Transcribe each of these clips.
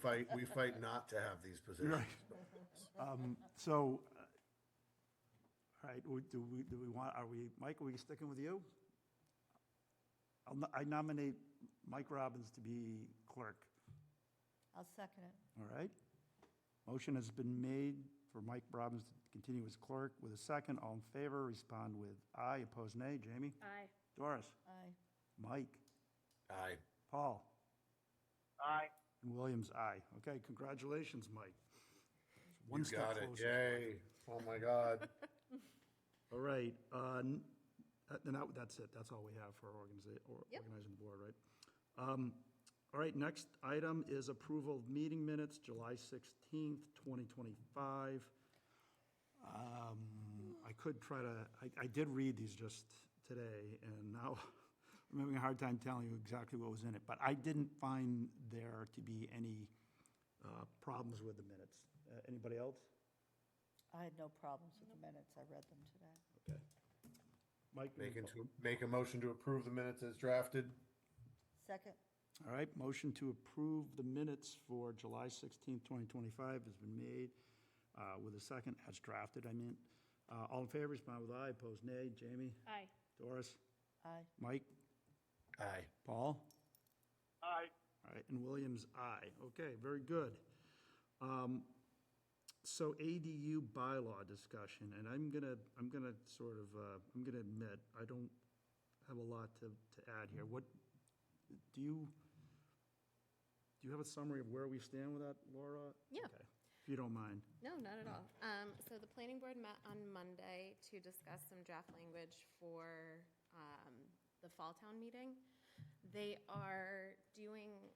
fight, we fight not to have these positions. So, uh, all right, we- do we, do we want, are we, Mike, are we sticking with you? I'll no- I nominate Mike Robbins to be clerk, I'll second it. all right? Motion has been made for Mike Robbins to continue as clerk with a second. All in favor, respond with aye, opposed nay. Jamie? Aye. Doris? Aye. Mike? Aye. Paul? Aye. And Williams, aye. Okay, congratulations, Mike. One You step got it, closer. yay. Oh, my God. All right, uh, n- uh, then that- that's it, that's all we have for organiza- or- Yep. organizing the board, right? Um, All right, next item is approval of meeting minutes, July 16th, 2025. Um, I could try to, I I did read these just today, and now I'm having a hard time telling you exactly what was in it, but I didn't find there to be any uh, problems with the minutes. Uh, Anybody else? I had no problems with the minutes. I read them today. Okay. Mike? you Make can- into, make a motion to approve the minutes as drafted. Second? All right, motion to approve the minutes for July 16, 2025 has been made uh, with a second, as drafted, I mean. Uh, All in favor, respond with aye, opposed nay. Jamie? Aye. Doris? Aye. Mike? Aye. Paul? Aye. All right, and Williams, aye. Okay, very good. Um, So ADU bylaw discussion, and I'm gonna, I'm gonna sort of, uh, I'm gonna admit, I don't have a lot to, to add here. What, do you, do you have a summary of where we stand with that, Laura? Yeah. Okay, If you don't mind. No, not at all. Um, so the planning board met on Monday to discuss some draft language for, um, the fall town meeting. They are doing,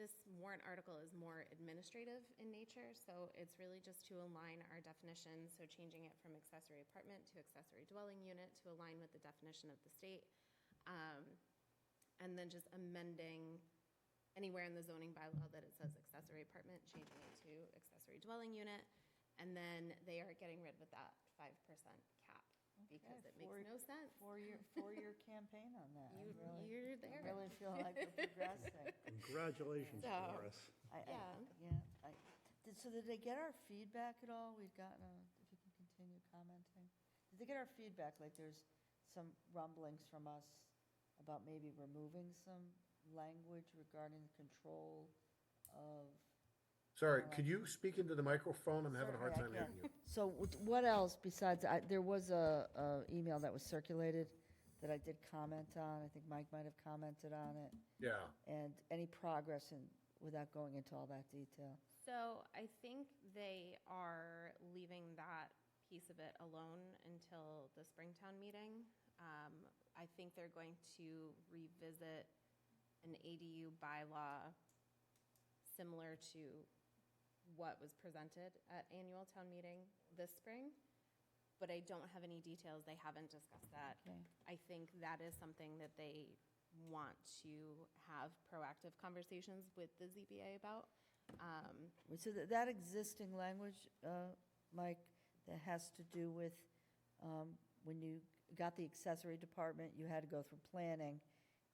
this warrant article is more administrative in nature, so it's really just to align our definitions, so changing it from accessory apartment to accessory dwelling unit to align with the definition of the state. Um, and then just amending anywhere in the zoning bylaw that it says accessory apartment, changing it to accessory dwelling unit. And then they are getting rid of that five percent cap because Okay, it makes four- no sense. Four-year, four-year campaign on that. I really- You, you're I there. really feel like we're progressing. Congratulations, So- Doris. I- I- Yeah. Yeah, I, did, so did they get our feedback at all? We've gotten, a- if you can continue commenting. Did they get our feedback, like there's some rumblings from us about maybe removing some language regarding the control of? Sorry, could you speak into the microphone? I'm having a hard time Certainly I hearing can. you. So wh- what else besides, I, there was a, a email that was circulated that I did comment on. I think Mike might have commented on it. Yeah. And any progress in, without going into all that detail? So I think they are leaving that piece of it alone until the Springtown meeting. Um, I think they're going to revisit an ADU bylaw similar to what was presented at annual town meeting this spring, but I don't have any details. They haven't discussed that. Okay. I think that is something that they want to have proactive conversations with the ZBA about. Um, So that, that existing language, uh, Mike, that has to do with, um, when you got the accessory department, you had to go through planning.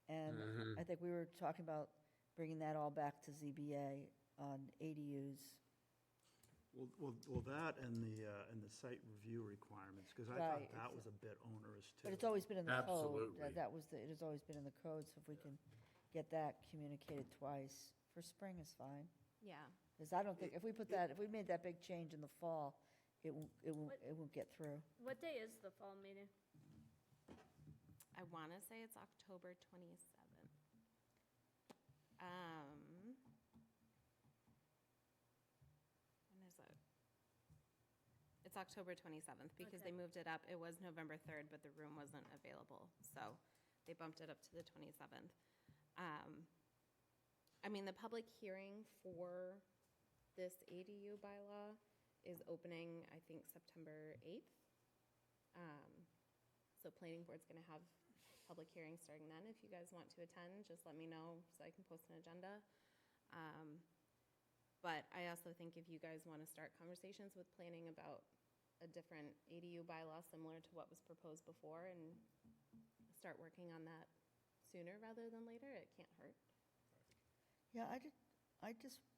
And I think we were talking about bringing that all back to ZBA on ADUs. Well, well, well, that and the, uh, and the site review requirements, because I thought Right. that was a bit onerous, too. But it's always been in the code. Absolutely. That- That was, the it has always been in the code, so if we can get that communicated twice, for spring is fine. yeah. Because I don't think, if we put that, if we made that big change in the fall, it won't, it won't, What- it won't get through. What day is the fall meeting? I want to say it's October 27th. Um, when is it? It's October 27th because they Okay. moved it up. It was November 3rd, but the room wasn't available, so they bumped it up to the 27th. Um, I mean, the public hearing for this ADU bylaw is opening, I think, September 8th. Um, so planning board's gonna have public hearings starting then. If you guys want to attend, just let me know so I can post an agenda. Um, But I also think if you guys want to start conversations with planning about a different ADU bylaw similar to what was proposed before and start working on that sooner rather than later, it can't hurt. Yeah, I did, I just